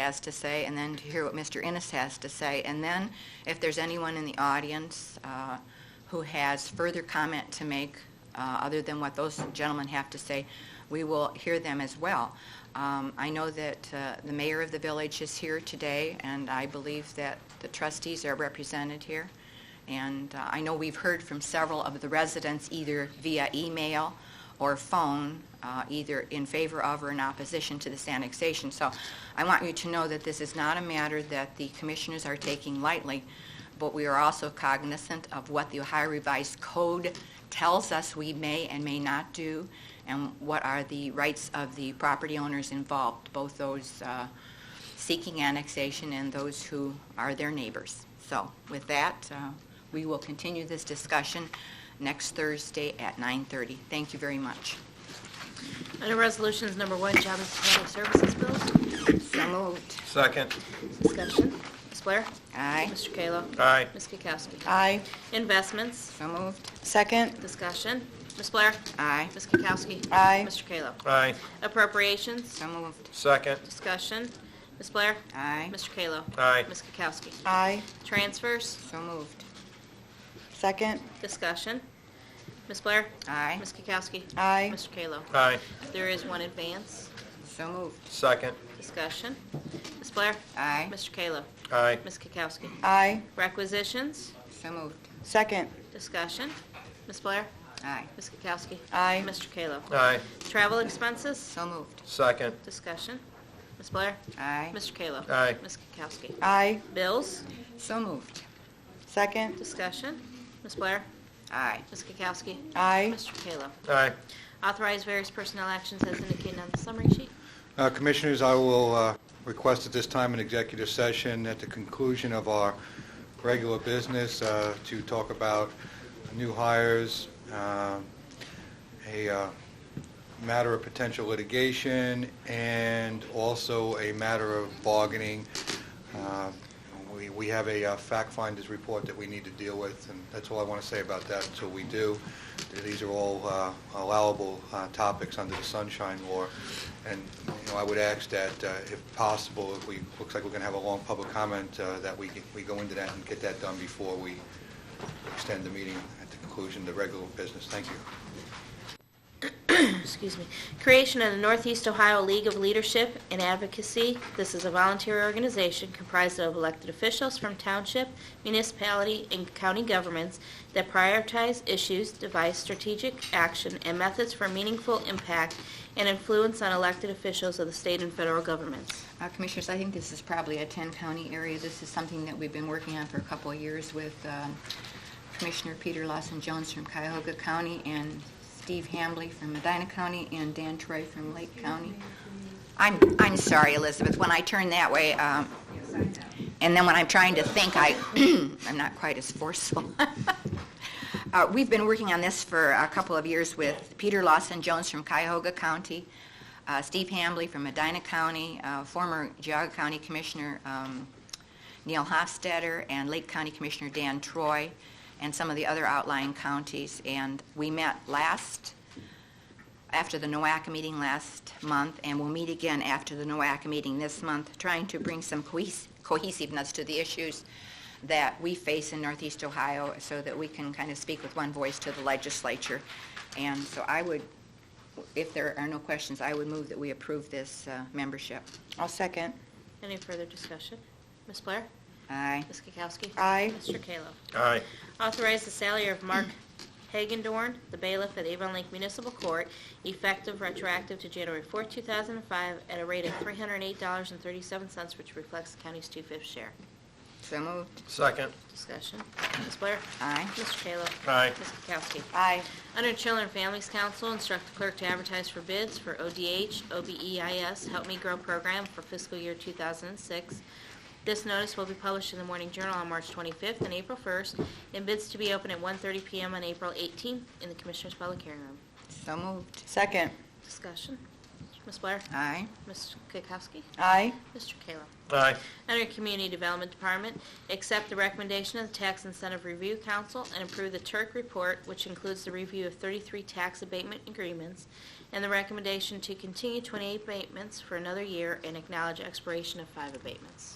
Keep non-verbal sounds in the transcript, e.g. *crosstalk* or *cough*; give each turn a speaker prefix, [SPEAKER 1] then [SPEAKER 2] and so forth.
[SPEAKER 1] has to say, and then to hear what Mr. Innes has to say. And then, if there's anyone in the audience uh, who has further comment to make, uh, other than what those gentlemen have to say, we will hear them as well. Um, I know that uh, the mayor of the village is here today, and I believe that the trustees are represented here. And uh, I know we've heard from several of the residents, either via email or phone, uh, either in favor of or in opposition to this annexation. So I want you to know that this is not a matter that the commissioners are taking lightly, but we are also cognizant of what the Ohio Revised Code tells us we may and may not do, and what are the rights of the property owners involved, both those uh, seeking annexation and those who are their neighbors. So with that, uh, we will continue this discussion next Thursday at 9:30. Thank you very much.
[SPEAKER 2] Under Resolutions Number One, Job and Family Services Bills,
[SPEAKER 1] So moved.
[SPEAKER 3] Second.
[SPEAKER 2] discussion. Ms. Blair?
[SPEAKER 1] Aye.
[SPEAKER 2] Mr. Kayla?
[SPEAKER 3] Aye.
[SPEAKER 2] Ms. Kukowski?
[SPEAKER 4] Aye.
[SPEAKER 2] Investments,
[SPEAKER 1] So moved.
[SPEAKER 4] Second.
[SPEAKER 2] discussion. Ms. Blair?
[SPEAKER 1] Aye.
[SPEAKER 2] Ms. Kukowski?
[SPEAKER 4] Aye.
[SPEAKER 2] Mr. Kayla?
[SPEAKER 3] Aye.
[SPEAKER 2] Appropriations,
[SPEAKER 1] So moved.
[SPEAKER 3] Second.
[SPEAKER 2] discussion. Ms. Blair?
[SPEAKER 1] Aye.
[SPEAKER 2] Mr. Kayla?
[SPEAKER 3] Aye.
[SPEAKER 2] Ms. Kukowski?
[SPEAKER 4] Aye.
[SPEAKER 2] Transfers,
[SPEAKER 1] So moved.
[SPEAKER 4] Second.
[SPEAKER 2] discussion. Ms. Blair?
[SPEAKER 1] Aye.
[SPEAKER 2] Ms. Kukowski?
[SPEAKER 4] Aye.
[SPEAKER 2] Mr. Kayla?
[SPEAKER 3] Aye.
[SPEAKER 2] There is one advance,
[SPEAKER 1] So moved.
[SPEAKER 3] Second.
[SPEAKER 2] discussion. Ms. Blair?
[SPEAKER 1] Aye.
[SPEAKER 2] Mr. Kayla?
[SPEAKER 3] Aye.
[SPEAKER 2] Ms. Kukowski?
[SPEAKER 4] Aye.
[SPEAKER 2] Requisitions,
[SPEAKER 1] So moved.
[SPEAKER 4] Second.
[SPEAKER 2] discussion. Ms. Blair?
[SPEAKER 1] Aye.
[SPEAKER 2] Ms. Kukowski.
[SPEAKER 4] Aye.
[SPEAKER 2] Mr. Kayla.
[SPEAKER 3] Aye.
[SPEAKER 2] Travel expenses,
[SPEAKER 1] So moved.
[SPEAKER 3] Second.
[SPEAKER 2] discussion. Ms. Blair.
[SPEAKER 1] Aye.
[SPEAKER 2] Mr. Kayla.
[SPEAKER 3] Aye.
[SPEAKER 2] Ms. Kukowski.
[SPEAKER 4] Aye.
[SPEAKER 2] Bills,
[SPEAKER 1] So moved.
[SPEAKER 4] Second.
[SPEAKER 2] discussion. Ms. Blair.
[SPEAKER 1] Aye.
[SPEAKER 2] Ms. Kukowski.
[SPEAKER 4] Aye.
[SPEAKER 2] Mr. Kayla.
[SPEAKER 3] Aye.
[SPEAKER 2] Authorize various personnel actions as indicated on the summary sheet.
[SPEAKER 5] Uh, Commissioners, I will uh, request at this time an executive session at the conclusion of our regular business uh, to talk about new hires, uh, a uh, matter of potential litigation, and also a matter of bargaining. Uh, we- We have a uh, fact finder's report that we need to deal with, and that's all I want to say about that until we do. These are all uh, allowable uh, topics under the sunshine law, and, you know, I would ask that, uh, if possible, if we, looks like we're going to have a long public comment, uh, that we we go into that and get that done before we extend the meeting at the conclusion of the regular business. Thank you.
[SPEAKER 2] Excuse me. Creation of the Northeast Ohio League of Leadership and Advocacy. This is a volunteer organization comprised of elected officials from township, municipality, and county governments that prioritize issues, devise strategic action, and methods for meaningful impact and influence on elected officials of the state and federal governments.
[SPEAKER 1] Uh, Commissioners, I think this is probably a 10-county area. This is something that we've been working on for a couple of years with um, Commissioner Peter Lawson Jones from Cuyahoga County and Steve Hambley from Medina County and Dan Troy from Lake County. I'm, I'm sorry, Elizabeth, when I turn that way, um, and then when I'm trying to think, I, *clears throat* I'm not quite as forceful. *laughs* Uh, We've been working on this for a couple of years with Peter Lawson Jones from Cuyahoga County, uh, Steve Hambley from Medina County, uh, former Geauga County Commissioner um, Neil Hofstadter, and Lake County Commissioner Dan Troy, and some of the other outlying counties. And we met last, after the NOACA meeting last month, and we'll meet again after the NOACA meeting this month, trying to bring some cohes- cohesiveness to the issues that we face in Northeast Ohio so that we can kind of speak with one voice to the legislature. And so I would, if there are no questions, I would move that we approve this uh, membership.
[SPEAKER 4] I'll second.
[SPEAKER 2] Any further discussion? Ms. Blair?
[SPEAKER 1] Aye.
[SPEAKER 2] Ms. Kukowski?
[SPEAKER 4] Aye.
[SPEAKER 2] Mr. Kayla?
[SPEAKER 3] Aye.
[SPEAKER 2] Authorize the salary of Mark Hagendorn, the bailiff at Avon Lake Municipal Court, effective retroactive to January 4, 2005, at a rate of $308.37, which reflects the county's two-fifth share.
[SPEAKER 1] So moved.
[SPEAKER 3] Second.
[SPEAKER 2] Discussion. Ms. Blair?
[SPEAKER 1] Aye.
[SPEAKER 2] Mr. Kayla?
[SPEAKER 3] Aye.
[SPEAKER 2] Ms. Kukowski?
[SPEAKER 4] Aye.
[SPEAKER 2] Under Children and Families Council, instruct the clerk to advertise for bids for ODH, OBEIS, E Help Me Grow program for fiscal year 2006. This notice will be published in the Morning Journal on March 25th and April 1st, and bids to be open at 1:30 PM on April 18th in the Commissioners' Public Hearing Room.
[SPEAKER 1] So moved.
[SPEAKER 4] Second.
[SPEAKER 2] Discussion. Ms. Blair?
[SPEAKER 1] Aye.
[SPEAKER 2] Ms. Kukowski?
[SPEAKER 4] Aye.
[SPEAKER 2] Mr. Kayla?
[SPEAKER 3] aye,
[SPEAKER 2] Under Community Development Department, accept the recommendation of the Tax Incentive Review Council and approve the Turk Report, which includes the review of 33 tax abatement agreements, and the recommendation to continue 28 abatements for another year and acknowledge expiration of five abatements.